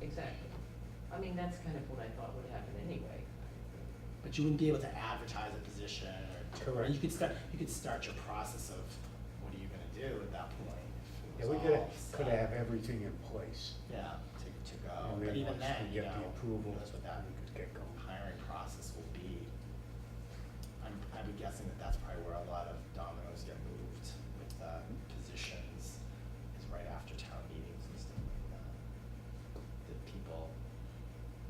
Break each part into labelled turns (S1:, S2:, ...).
S1: exactly. I mean, that's kind of what I thought would happen anyway.
S2: But you wouldn't be able to advertise a position or. or
S3: Correct.
S2: You could start, you could start your process of what are you gonna do at that point? if
S3: Yeah,
S2: it
S3: we
S2: was
S3: could,
S2: all
S3: could
S2: set.
S3: have everything in place.
S2: Yeah, to, to go,
S3: And
S2: Oh, but
S3: then
S2: even
S3: once
S2: then,
S3: we
S2: you
S3: get
S2: know,
S3: the approval,
S2: that's what that
S3: we could get going.
S2: hiring process will be. I'm, I'd be guessing that that's probably where a lot of dominoes get moved with, uh, positions, is right after town meetings and stuff like that. That people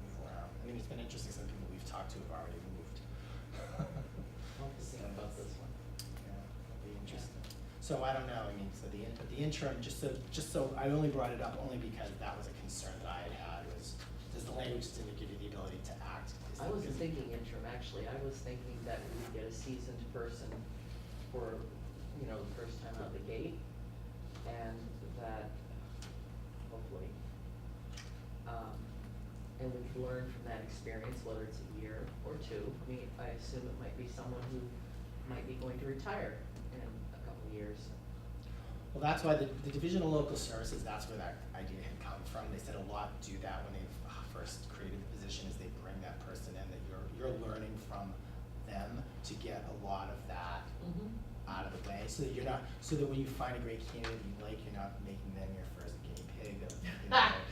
S2: move around, I mean, it's been interesting, some people we've talked to have already moved.
S1: I'll have to see about this one.
S2: Yeah, that'd be interesting. So I don't know, I mean, so the, in- the interim, just so, just so, I only brought it up only because that was a concern that I had had was, does the language didn't give you the ability to act? Is
S1: I
S2: it- is-
S1: wasn't thinking interim, actually, I was thinking that we would get a seasoned person for, you know, the first time out the gate, and that, hopefully, um, and we could learn from that experience, whether it's a year or two. I mean, I assume it might be someone who might be going to retire in a couple of years.
S2: Well, that's why the, the Division of Local Services, that's where that idea had come from. They said a lot do that when they've uh, first created the position, is they bring that person in, that you're, you're learning from them to get a lot of that out of the way, so that you're not, so that when you find a great candidate you like, you're not making them your first guinea pig of,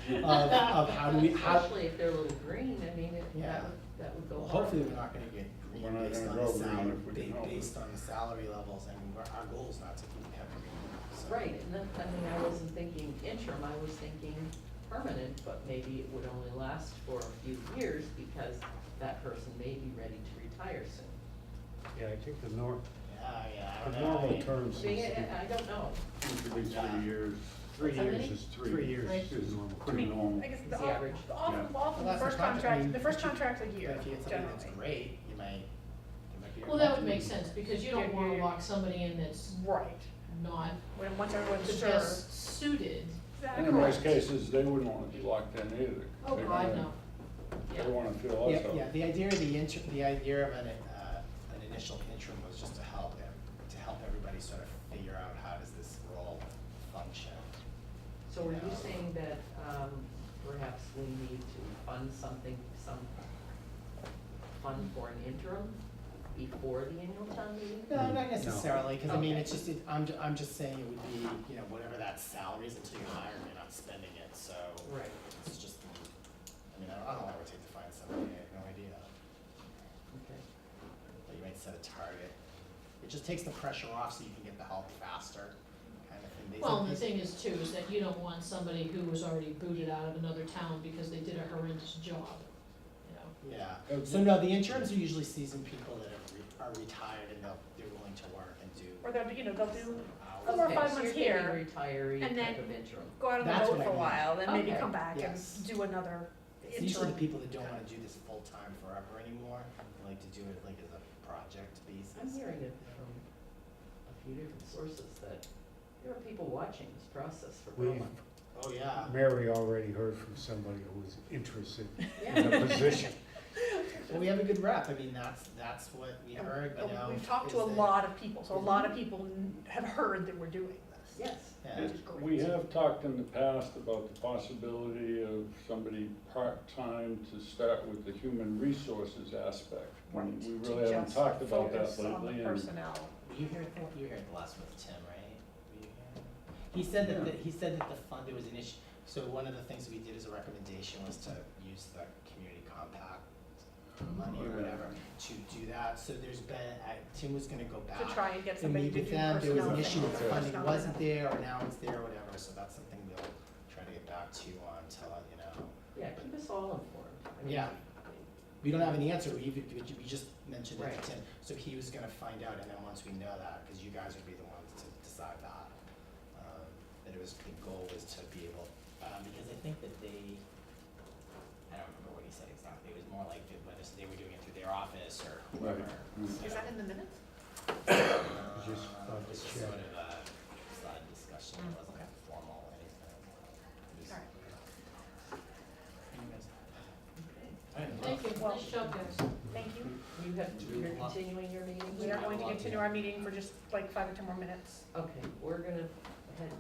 S2: you know, of, of how do we, how,
S1: Especially if they're a little green, I mean, it,
S2: Yeah.
S1: that would, that would go
S2: well,
S1: hard.
S2: hopefully we're not gonna get
S4: We're
S2: green
S4: not
S2: based on the
S4: gonna go green
S2: salary,
S4: if we can
S2: ba-
S4: help it.
S2: based on the salary levels, I mean, we're, our goal's not to have green, so.
S1: Right, and then, I mean, I wasn't thinking interim, I was thinking permanent, but maybe it would only last for a few years because that person may be ready to retire soon.
S3: Yeah, I think the nor,
S2: Yeah, yeah, I
S3: the
S2: don't know. I
S3: normal
S2: mean,
S3: term seems to
S1: See,
S3: be,
S1: I, I don't know.
S4: Seems to be three years,
S3: three
S5: How
S3: years
S5: many?
S3: is three. Three years is normal.
S4: pretty normal.
S5: I guess
S1: It's
S5: the
S1: the
S5: off,
S1: average.
S5: the off,
S4: Yeah.
S5: off of
S2: Well,
S5: the
S2: that's
S5: first
S2: the contract, I mean,
S5: contract, the first
S2: but you-
S5: contract's a year
S2: But if you get something that's
S5: generally.
S2: great, you might, there might be a.
S6: Well, that would make sense, because you don't wanna lock somebody in that's
S5: Right,
S6: not
S5: when, once
S6: the
S5: everyone's sure.
S6: best suited.
S4: And in most
S5: Correct.
S4: cases, they wouldn't wanna be locked in either.
S6: Oh,
S4: They
S6: God,
S4: wanna-
S6: no.
S4: They wanna feel
S2: Yeah,
S4: also.
S2: yeah, the idea of the inter, the idea of an, uh, an initial interim was just to help them, to help everybody sort of figure out how does this role function.
S1: So are you saying that, um, perhaps we need to fund something, some fund for an interim before the annual town meeting?
S2: No, Uh, not necessarily, cause I mean,
S1: Okay.
S2: it's just, it, I'm, ju- I'm just saying it would be, you know, whatever that salary is until you hire, them, you're not spending it, so.
S1: Right.
S2: It's just, I mean, I don't I don't know how it would take to find somebody, I have no idea,
S1: Okay.
S2: but you might set a target. It just takes the pressure off so you can get the help faster, kind of thing. They-
S6: Well, and the thing is too, is that you don't want somebody who was already booted out of another town because they did a horrendous job, you know?
S2: Yeah,
S4: Oh,
S2: so no, the interns are usually seasoned people that are, re- are retired and they'll, they're willing to work and do.
S5: Or they'll, you know, they'll do,
S2: hours.
S5: Four or
S1: Okay,
S5: five
S1: so
S5: months
S1: you're
S5: here,
S1: thinking retiree
S5: and
S1: type
S5: then-
S1: of interim.
S5: go out on the
S2: That's
S5: boat
S2: what
S5: for a
S2: I mean.
S5: while, then maybe
S1: Okay.
S5: come back and
S2: Yes.
S5: do another
S2: It's usually
S5: interim.
S2: the people that don't wanna do this full-time forever anymore, they like to do it like as a project basis.
S1: I'm hearing it from um, a few different sources that there are people watching this process for
S3: We've,
S1: Berlin.
S2: Oh, yeah,
S3: Mary already heard from somebody who was interested in
S1: Yeah.
S3: the position.
S2: well, we have a good rep, I mean, that's, that's what we
S5: And-
S2: heard, but
S5: and
S2: now.
S5: Oh, We've talked to
S2: is
S5: a
S2: that-
S5: lot of people, so a lot of people n- have heard that we're doing this.
S1: Yes,
S2: Yeah,
S5: Which is great.
S4: We have talked in the past about the possibility of somebody part-time to start with the human resources aspect. We-
S5: Right,
S4: We
S5: to
S4: really haven't
S5: just
S4: talked about that
S5: focus on the
S4: lately, and
S5: personnel.
S2: were you here, at the- you were here at the last one with Tim, right? Were you here? He said that, the- he said that the fund, there was an issue, so one of the things we did as a recommendation was to use the community compact money or
S4: Yeah.
S2: whatever to do that, so there's been, I, Tim was gonna go back.
S5: to try and get
S2: and
S5: somebody
S2: meet
S5: to
S2: with
S5: do
S2: them, there was
S5: personnel
S2: an
S5: things.
S2: issue with the
S4: Okay.
S2: funding wasn't there, or now it's there, or whatever, so that's something we'll try to get back to you on, tell, you know.
S1: yeah, keep us all informed. I mean,
S2: Yeah. We don't have an answer, we, we we just mentioned it
S1: Right.
S2: to Tim, so he was gonna find out, and then once we know that, cause you guys would be the ones to decide that. um, That it was, the goal was to be able, um, because I think that they, I don't remember what he said exactly, it was more like that whether they were doing it through their office or
S4: Right.
S2: whoever.
S4: Mm.
S5: Is that in the minutes?
S2: Just,
S3: Just thought to
S2: it's just
S3: check.
S2: sort of a side discussion, it
S5: Mm,
S2: wasn't
S5: okay.
S2: formal or anything. It was-
S5: All right.
S2: Anyways.
S1: Okay.
S2: I didn't know.
S6: Thank you,
S5: Well-
S6: nice job, guys.
S5: Thank you.
S1: You have, you're continuing your meeting?
S5: We are going to
S2: Yeah.
S5: continue our meeting for just like five or ten more minutes.
S1: Okay, we're gonna head